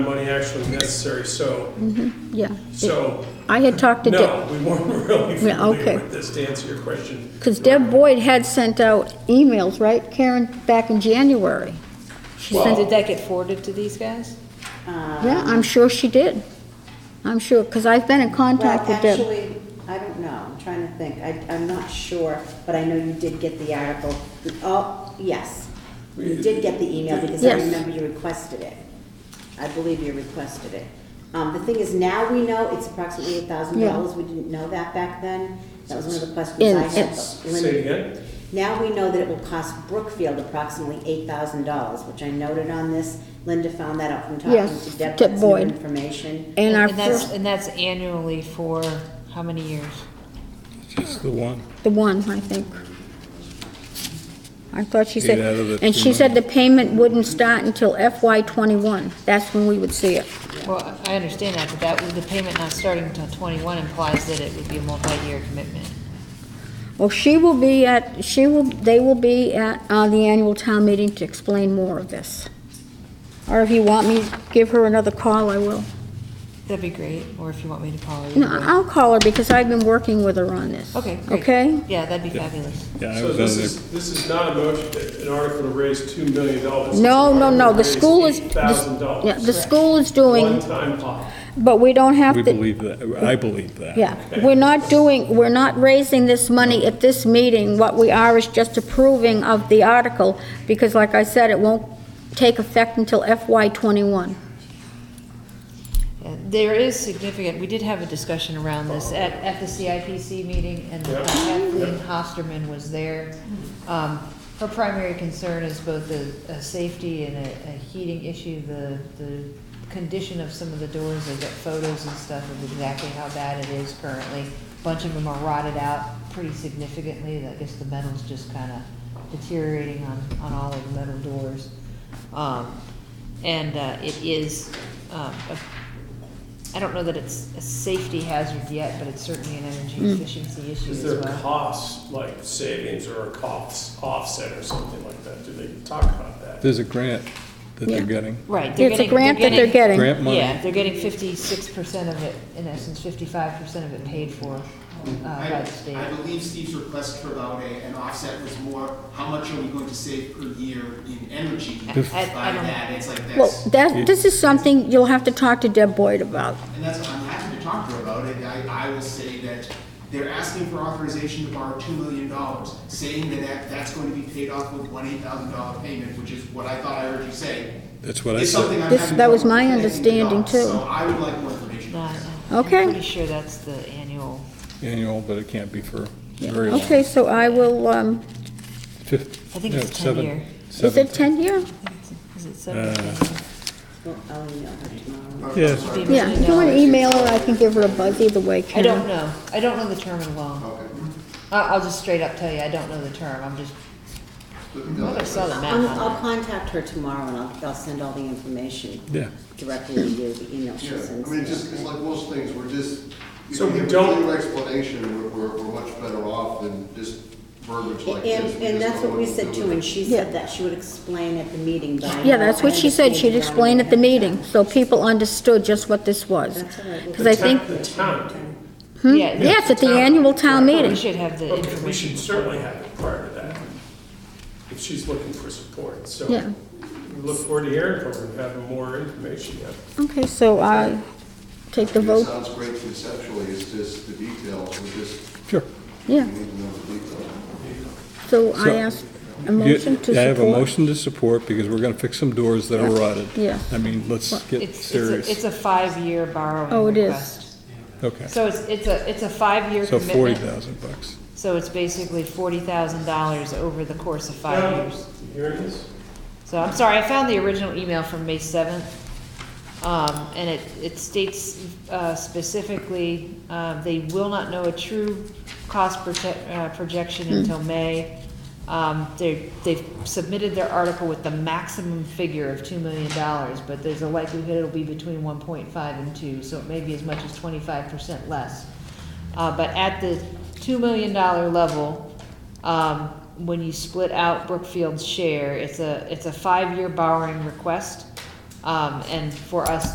money actually necessary, so, Yeah. so, I had talked to Deb, no, we weren't really Yeah, okay. familiar with this, to answer your question. because Deb Boyd had sent out emails, right, Karen, back in January? She Well- sent Did it, that get forwarded to these guys? yeah, I'm sure she did. I'm sure, because I've been in contact with Well, Deb. actually, I don't know, I'm trying to think, I, I'm not sure, but I know you did get the article, oh, yes. You did get the email because I Yes. remember you requested it. I believe you requested it. Um, the thing is, now we know it's approximately a thousand dollars, we didn't know that back then. That was one of the questions And I had. it's- but Linda- Say it again? Now we know that it will cost Brookfield approximately eight thousand dollars, which I noted on this. Linda found that out from talking Yes, to Deb, Deb that's new Boyd. information. And our that's, first, and that's annually for how many years? Just the one. the one, I think. I thought she said, Eight out of the and she 200. said the payment wouldn't start until FY twenty-one. That's when we would see it. Well, I understand that, but that, with the payment not starting until twenty-one implies that it would be a multi-year commitment. Well, she will be at, she will, they will be at uh, the annual town meeting to explain more of this. Or if you want me to give her another call, I will. That'd be great, or if you want me to call you. No, I'll call her because I've been working with her on this. Okay, great. Okay? Yeah, that'd be fabulous. Yeah, I So was on this there. is, this is not a motion, an article to raise two million dollars. No, no, no, the school is. Thousand Yeah, dollars. the school is doing, One-time pop. but we don't have We to. believe that, I believe that. Yeah, we're not doing, we're not raising this money at this meeting. What we are is just approving of the article, because like I said, it won't take effect until FY '21. Yeah, Uh, There is significant, we did have a discussion around this at, at the CIPC meeting, and Yeah. uh, Kathleen Hosterman was there. Um, Her primary concern is both a, a safety and a, a heating issue, the, the condition of some of the doors, they got photos and stuff of exactly how bad it is currently. Bunch of them are rotted out pretty significantly, I guess the metal's just kinda deteriorating on, on all of the metal doors. Um, And uh, it is um, a I don't know that it's a safety hazard yet, but it's certainly an energy Hmm. efficiency issue Is as there a well. cost, like savings or a cost offset or something like that? Do they talk about that? There's a grant that they're Yeah. getting, Right. they're It's a getting- grant that they're getting. grant money. Yeah, they're getting fifty-six percent of it, in essence, fifty-five percent of it paid for uh, by I the state. I believe Steve's request for about a, an offset was more, how much are we going to save per year in energy I- by I- I don't- that? It's like Well, that's, that, this is something you'll have to talk to Deb Boyd about. and that's, I'm happy to talk to her about it. I, I will say that they're asking for authorization to borrow two million dollars, saying that that, that's going to be paid off with one eight thousand dollar payment, which is what I thought I heard you say. that's what I It's something said. I'm This- having that was trouble my connecting the understanding, dots, too. So I would like more information. No, on I- that. I'm Okay. pretty sure that's the annual. Annual, but it can't be for very long. Okay, so I will, um, Fif- I think no, it's 10 seven- year. is seven- it 10 year? Is it seven? Well, I'll email her tomorrow. Or- Yes. sorry. Yeah, if you want to email her, I can give her a buzz either way, I Karen. don't know. I don't know the term in law. Okay. I, I'll just straight up tell you, I don't know the term. I'm just, We can go I that way. saw the map Um, on I'll, I'll it. contact her tomorrow and I'll, I'll send all the information Yeah, directly to you, the email she Yeah, sends. I mean, just, it's like most things, we're just, you So know, we give a don't- clear explanation, we're, we're, we're much better off than just verbiage like this. And, We and just that's know what we to said do too, with and it. she Yeah. said that she would explain at the meeting, but I. Yeah, that's what she said, she'd explain at the meeting, so people understood just what this was. That's all right. Because I think, The town, hmm, Yeah, it's yes, at the annual town we meeting. should have the okay, information. we should before. certainly have it prior to that, if she's looking for support, so. Yeah. We look forward to hearing from her and having more information, yeah. Okay, so I take the I mean, It vote, sounds great conceptually, it's just the details, we just, sure. we yeah. need to know the details. So I So- ask a motion to support. Yeah, I have a motion to support because we're gonna fix some doors that are rotted. Yeah. I mean, let's get It's, it's, a- it's serious. a five-year borrowing Oh, it is. request. Okay, So it's, it's a, it's a five-year so forty commitment, thousand bucks. so it's basically forty thousand dollars over the course of five Now, years. you Hearing this? So I'm sorry, I found the original email from May seventh, um, and it, it states, uh, specifically, uh, they will not know a true cost prote- uh, projection until May. Um, they, they've submitted their article with the maximum figure of two million dollars, but there's a likelihood it'll be between one point five and two, so it may be as much as twenty-five percent less. Uh, but at the two million dollar level, um, when you split out Brookfield's share, it's a, it's a five-year borrowing request. Um, and for us